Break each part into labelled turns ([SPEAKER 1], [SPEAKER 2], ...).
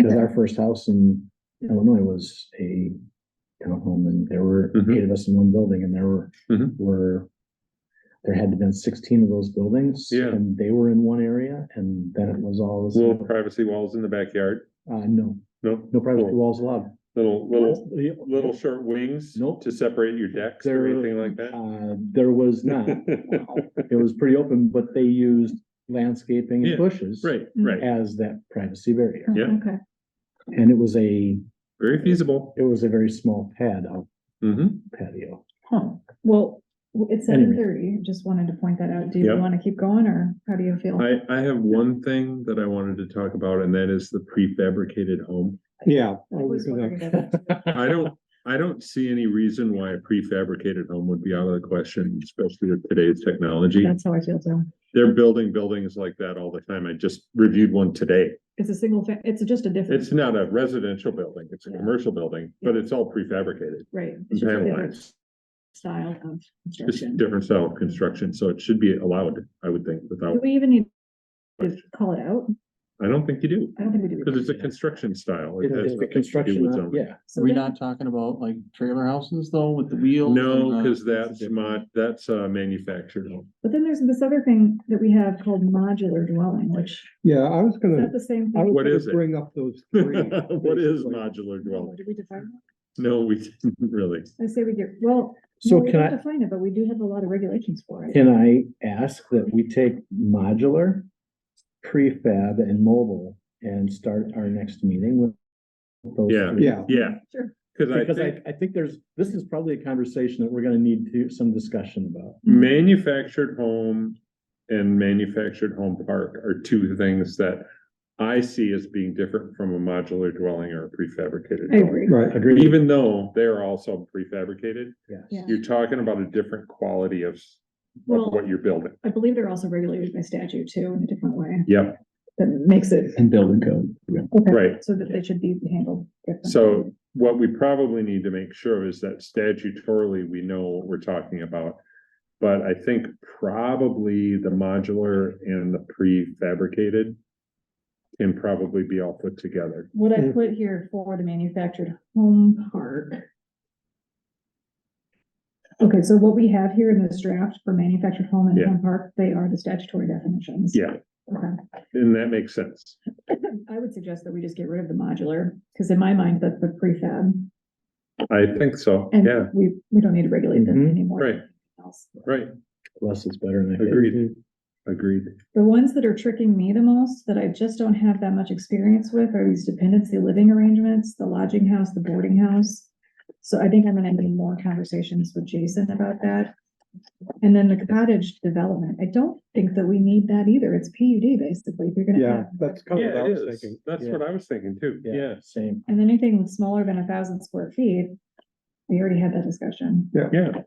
[SPEAKER 1] Cause our first house in Illinois was a townhome and there were
[SPEAKER 2] Mhm.
[SPEAKER 1] eight of us in one building and there were,
[SPEAKER 2] Mhm.
[SPEAKER 1] were. There had to been sixteen of those buildings.
[SPEAKER 2] Yeah.
[SPEAKER 1] And they were in one area and then it was all, this-
[SPEAKER 2] Little privacy walls in the backyard,
[SPEAKER 1] uh, no,
[SPEAKER 2] no,
[SPEAKER 1] no private
[SPEAKER 2] Cool.
[SPEAKER 1] walls allowed.
[SPEAKER 2] little, little, little
[SPEAKER 1] Little.
[SPEAKER 2] short wings
[SPEAKER 1] Nope.
[SPEAKER 2] to separate your decks or
[SPEAKER 1] There-
[SPEAKER 2] anything like that?
[SPEAKER 1] Uh, there was not. It was pretty open, but they used landscaping
[SPEAKER 2] Yeah,
[SPEAKER 1] and bushes.
[SPEAKER 2] Right, right,
[SPEAKER 1] As that privacy barrier.
[SPEAKER 2] Yeah.
[SPEAKER 3] Oh, Okay,
[SPEAKER 1] And it was a,
[SPEAKER 2] very feasible.
[SPEAKER 1] it was a very small pad out
[SPEAKER 2] Mhm.
[SPEAKER 1] patio.
[SPEAKER 3] well, w- it's seven
[SPEAKER 1] Anyway.
[SPEAKER 3] thirty, just wanted to point that out. Do you
[SPEAKER 2] Yep.
[SPEAKER 3] wanna keep going or how do you feel?
[SPEAKER 2] I, I have one thing that I wanted to talk about and that is the prefabricated home.
[SPEAKER 1] Yeah.
[SPEAKER 3] was wondering about
[SPEAKER 2] I don't, I don't see any reason why a prefabricated home would be out of the question, especially with today's technology.
[SPEAKER 3] That's how I feel too.
[SPEAKER 2] They're building buildings like that all the time. I just reviewed one today.
[SPEAKER 3] It's a single, fa- it's just a different,
[SPEAKER 2] It's not a residential building, it's a commercial building, but it's all prefabricated.
[SPEAKER 3] right? It's just a
[SPEAKER 2] Panel
[SPEAKER 3] different
[SPEAKER 2] lines,
[SPEAKER 3] Style of
[SPEAKER 2] just
[SPEAKER 3] construction.
[SPEAKER 2] different style of construction, so it should be allowed, I would think, without,
[SPEAKER 3] Do we even need to call it out?
[SPEAKER 2] I don't think you do.
[SPEAKER 3] I don't think we do.
[SPEAKER 2] Because it's a construction style. It
[SPEAKER 1] It-
[SPEAKER 2] has
[SPEAKER 1] it's the
[SPEAKER 2] nothing to do
[SPEAKER 1] construction,
[SPEAKER 2] with
[SPEAKER 1] uh,
[SPEAKER 2] zoning.
[SPEAKER 1] yeah.
[SPEAKER 3] So
[SPEAKER 4] Are we
[SPEAKER 3] then-
[SPEAKER 4] not talking about like trailer houses though with the wheels?
[SPEAKER 2] No,
[SPEAKER 4] and uh,
[SPEAKER 1] uh,
[SPEAKER 4] the-
[SPEAKER 2] because that's
[SPEAKER 4] a
[SPEAKER 2] not, that's uh manufactured. home.
[SPEAKER 3] But then there's this other thing that we have called modular dwelling, which
[SPEAKER 5] Yeah, I was
[SPEAKER 3] is
[SPEAKER 5] gonna,
[SPEAKER 3] that the same
[SPEAKER 5] I
[SPEAKER 3] thing?
[SPEAKER 2] What
[SPEAKER 5] was
[SPEAKER 2] is it?
[SPEAKER 5] gonna bring up those three.
[SPEAKER 2] What is
[SPEAKER 5] basically.
[SPEAKER 2] modular dwelling?
[SPEAKER 3] Did we define
[SPEAKER 2] No, we didn't really.
[SPEAKER 3] that? I say we get, well,
[SPEAKER 1] So
[SPEAKER 3] no, we
[SPEAKER 1] can
[SPEAKER 3] don't
[SPEAKER 1] I-
[SPEAKER 3] Define it, but we do have a lot of regulations for it.
[SPEAKER 1] Can I ask that we take modular, prefab and mobile and start our next meeting with? those
[SPEAKER 2] Yeah.
[SPEAKER 1] three?
[SPEAKER 5] Yeah,
[SPEAKER 2] Yeah,
[SPEAKER 3] Sure.
[SPEAKER 2] because I
[SPEAKER 1] Because
[SPEAKER 2] think
[SPEAKER 1] I, I think there's, this is probably a conversation that we're gonna need to, some discussion about.
[SPEAKER 2] manufactured home and manufactured home park are two things that I see as being different from a modular dwelling or a prefabricated
[SPEAKER 3] I
[SPEAKER 2] dwelling.
[SPEAKER 3] agree.
[SPEAKER 5] right.
[SPEAKER 1] Agreed?
[SPEAKER 2] Even though they're also prefabricated,
[SPEAKER 1] Yes.
[SPEAKER 3] Yeah.
[SPEAKER 2] you're talking about a different quality of s-
[SPEAKER 3] Well-
[SPEAKER 2] of what you're building.
[SPEAKER 3] I believe they're also regulated by statute too in a different way
[SPEAKER 2] Yep,
[SPEAKER 3] that makes it.
[SPEAKER 4] And building code.
[SPEAKER 3] okay,
[SPEAKER 2] right.
[SPEAKER 3] So that they should be handled. differently.
[SPEAKER 2] So what we probably need to make sure is that statutorily, we know what we're talking about. But I think probably the modular and the prefabricated can probably be all put together.
[SPEAKER 3] What I put here for the manufactured home park. Okay, so what we have here in this draft for manufactured home and
[SPEAKER 2] Yeah.
[SPEAKER 3] home park, they are the statutory definitions.
[SPEAKER 2] Yeah,
[SPEAKER 3] Okay.
[SPEAKER 2] and that makes sense.
[SPEAKER 3] I would suggest that we just get rid of the modular, because in my mind, that's the prefab.
[SPEAKER 2] I think so.
[SPEAKER 3] And
[SPEAKER 2] Yeah, Mm-hmm.
[SPEAKER 3] we, we don't need to regulate them
[SPEAKER 1] Mhm.
[SPEAKER 3] anymore.
[SPEAKER 2] right, right.
[SPEAKER 1] Less is better than. I think.
[SPEAKER 2] Agreed. Agreed.
[SPEAKER 3] The ones that are tricking me the most, that I just don't have that much experience with, are these dependency living arrangements, the lodging house, the boarding house. So I think I'm gonna have more conversations with Jason about that. And then the cottage development, I don't think that we need that either, it's PUD basically, if you're gonna
[SPEAKER 5] Yeah,
[SPEAKER 3] have.
[SPEAKER 5] that's kind of what I was thinking.
[SPEAKER 2] That's
[SPEAKER 1] Yeah.
[SPEAKER 2] what I was thinking too. Yeah.
[SPEAKER 1] Same.
[SPEAKER 3] And anything smaller than a thousand square feet, we already had that discussion,
[SPEAKER 2] Yeah,
[SPEAKER 3] okay?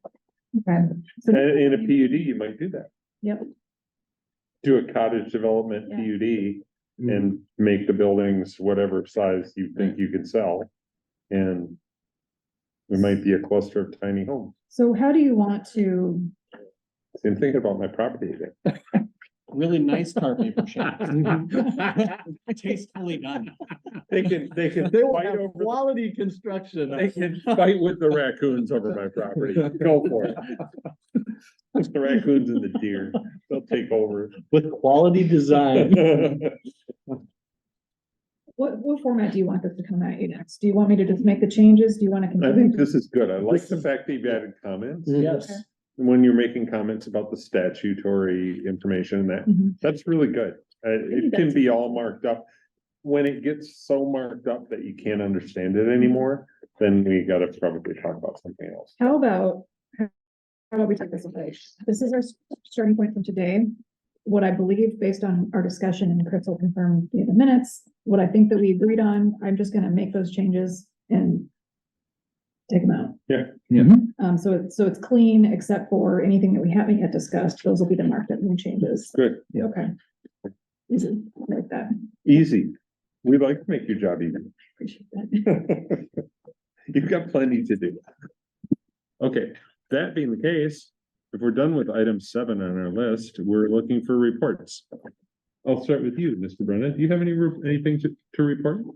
[SPEAKER 3] So-
[SPEAKER 2] and in a PUD, you might do that.
[SPEAKER 3] Yep.
[SPEAKER 2] Do a cottage development
[SPEAKER 3] Yeah.
[SPEAKER 2] PUD
[SPEAKER 5] Mm.
[SPEAKER 2] and make the buildings whatever size you think you can sell. And it might be a cluster of tiny homes.
[SPEAKER 3] So how do you want to
[SPEAKER 2] And thinking about my property again.
[SPEAKER 4] Really nice carpet paper shades. Tastefully done.
[SPEAKER 2] They can, they can
[SPEAKER 1] They will
[SPEAKER 2] fight
[SPEAKER 1] have
[SPEAKER 2] over,
[SPEAKER 1] quality construction.
[SPEAKER 2] they can fight with the raccoons over my property. Go for it. It's the raccoons and the deer. They'll take over.
[SPEAKER 1] With quality design.
[SPEAKER 3] What, what format do you want this to come at you next? Do you want me to just make the changes? Do you want to?
[SPEAKER 2] I
[SPEAKER 3] continue?
[SPEAKER 2] think this is good. I like
[SPEAKER 1] This
[SPEAKER 2] the
[SPEAKER 1] is-
[SPEAKER 2] fact that you've added comments.
[SPEAKER 1] Yes.
[SPEAKER 2] When you're making comments about the statutory information and that
[SPEAKER 3] Mhm.
[SPEAKER 2] That's really good. Uh, it
[SPEAKER 3] Maybe
[SPEAKER 2] can
[SPEAKER 3] that's-
[SPEAKER 2] be all marked up. When it gets so marked up that you can't understand it anymore, then we gotta probably talk about something else.
[SPEAKER 3] How about, how about we take this away? This is our s- starting point from today. What I believe based on our discussion and Chris will confirm via the minutes, what I think that we agreed on, I'm just gonna make those changes and take them out.
[SPEAKER 2] Yeah. Mm-hmm.
[SPEAKER 1] Yeah.
[SPEAKER 3] Um, so it's, so it's clean except for anything that we haven't yet discussed. Those will be the marked up new changes.
[SPEAKER 2] Good.
[SPEAKER 1] Yeah.
[SPEAKER 3] Okay. Easy, like that.
[SPEAKER 2] Easy. We like to make your job easy.
[SPEAKER 3] Appreciate that.
[SPEAKER 2] You've got plenty to do. Okay, that being the case, if we're done with item seven on our list, we're looking for reports. I'll start with you, Mr. Brennan. Do you have any, re- anything to, to report?